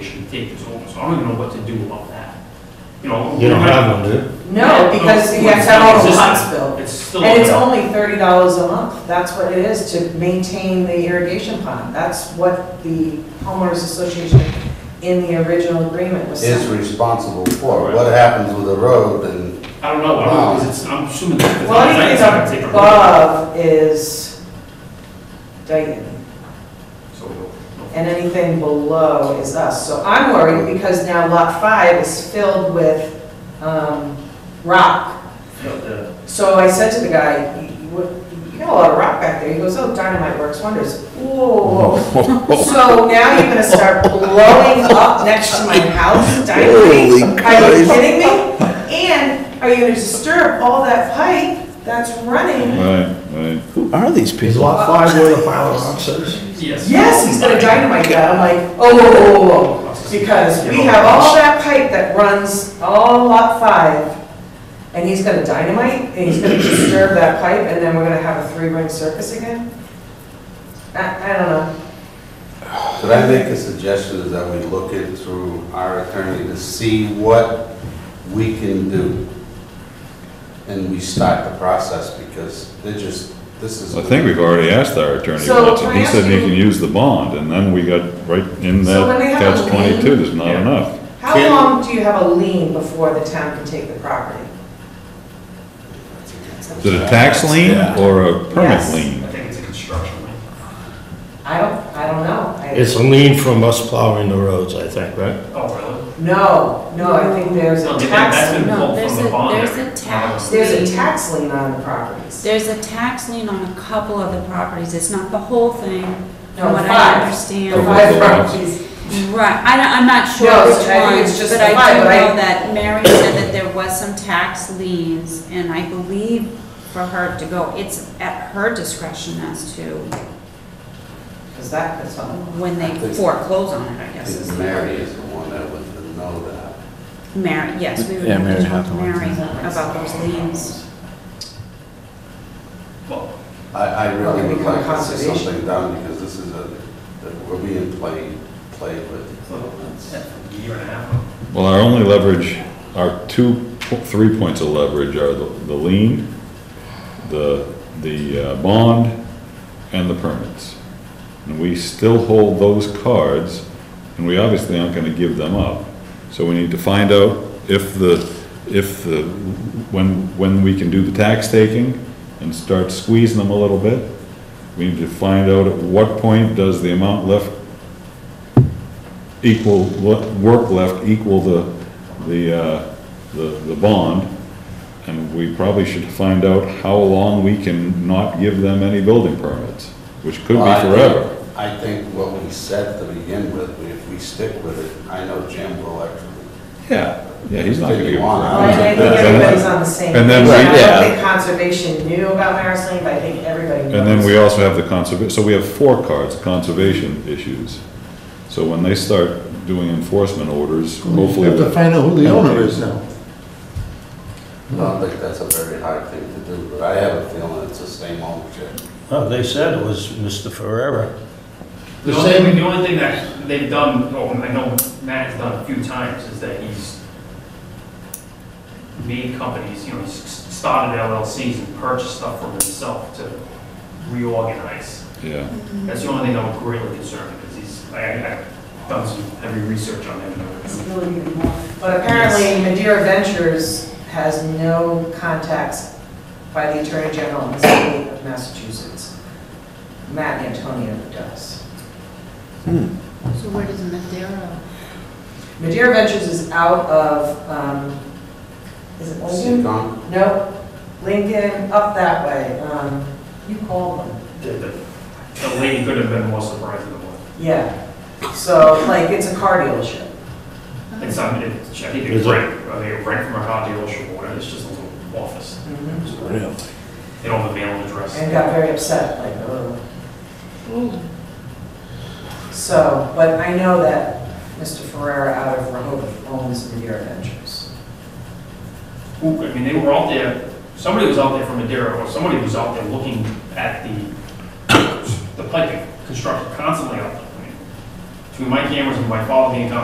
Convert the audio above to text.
take this over, so I don't even know what to do about that. You know. You don't have one, do you? No, because you have to have all the lots built. It's still. And it's only thirty dollars a month, that's what it is, to maintain the irrigation pond. That's what the homeowners association in the original agreement was is saying. responsible for. What happens with the road and, I don't know, I don't, because it's, I'm assuming that. Well, anything It's not gonna above is Dayton. take a- So, no. and anything below is us. So I'm worried because now lot five is filled with um, rock. Yeah, the- So I said to the guy, "You- you what- you got a lot of rock back there. He goes, oh, dynamite works wonders. Whoa. So now you're gonna start blowing up next to my house, Holy dynamite? Are you Christ. kidding me? And are you gonna disturb all that pipe that's running? Right, right. Who are these Is people? lot five where the pile of rocks is? Yes. Yes, he's gonna dynamite that. I'm like, oh, whoa, whoa, whoa, whoa. Because we have all that pipe that runs all lot five, and he's gonna dynamite, and he's gonna disturb that pipe, and then we're gonna have a three-ring circus again? I, I don't know. could I make a suggestion is that we look it through our attorney to see what we can do? And we start the process because they're just, this is. I think we've already asked our attorney So, once, can and I he said he ask you- can use the bond, and then we got right in So when that they have a catch twenty-two, lien- there's not Yeah. enough. How Can- long do you have a lien before the town can take the property? Is it a tax lien Yeah. or a permit Yes. I lien? think it's a construction lien. I don't, I don't know. I- It's a lien from us plowing the roads, I think, right? Oh, really? No, no, I think there's No, a they- tax, that's lien. been No, pulled there's from a- the bond. there's there. a tax. there's a tax lien on the properties. There's a tax lien on a couple of the properties, it's not the whole thing, No, from what five. I understand. The Five Overall. properties. Right, I don't, I'm not sure No, which I think it's ones, just but the I five, do but I- know that Mary said that there was some tax liens, and I believe for her to go, it's at her discretion as to Because that, that's all. when they foreclose on it, I guess. is the word. Mary is the one that would know that. Mary, yes, we would Yeah, have Mary to talk to Hathaway. Mary about those liens. Well, I, I Well, really we would can like to see conservation. something done because this is a, that we're being played, played with. so that's a year and a half. Well, our only leverage, our two, po- three points of leverage are the the lien, the, the uh, bond, and the permits. And we still hold those cards, and we obviously aren't gonna give them up. So we need to find out if the, if the, when, when we can do the tax taking and start squeezing them a little bit. We need to find out at what point does the amount left equal, what work left equal the, the, uh, the, the bond. And we probably should find out how long we can not give them any building permits, which could be Well, I think- forever. I think what we said to begin with, if we stick with it, I know Jim will actually Yeah, yeah, he's not gonna give. a crap. Right, I think everybody's on the same. And then page. we- I yeah. don't think conservation knew about Maris Lane, but I think everybody knows. And then we also have the conserva, so we have four cards, conservation issues. So when they start doing enforcement orders, hopefully. You have to find out who the owner is now. I don't think that's a very hard thing to do, but I have a feeling it's the same ownership. Oh, they said it was Mr. Ferrera. The The only, same- the only thing that they've done, oh, and I know Matt has done a few times, is that he's made companies, you know, he's started LLCs and purchased stuff for himself to reorganize. Yeah, That's the only thing I'm really concerned with, because he's, I, I've done some heavy research on him. and But apparently Madeira Ventures has no contacts by the Attorney General in the state of Massachusetts. Matt Antonio does. So where does Madeira? Madeira Ventures is out of, um, is it Lincoln? Seacon? Nope, Lincoln, up that way. Um, You called them. The the lady could have been more surprised than what. Yeah, so like it's a car dealership. It's, I mean, it's- I think Is it's it- rent, I think it's rent from a car dealership or whatever, it's just a little office. And Really? They don't have a mailing address. got very upset, like, oh. So, but I know that Mr. Ferrera out of Rehoboth owns Madeira Ventures. who, I mean, they were out there, somebody was out there from Madeira, or somebody was out there looking at the, the piping construction constantly out there. I mean, Between my cameras and my father being constantly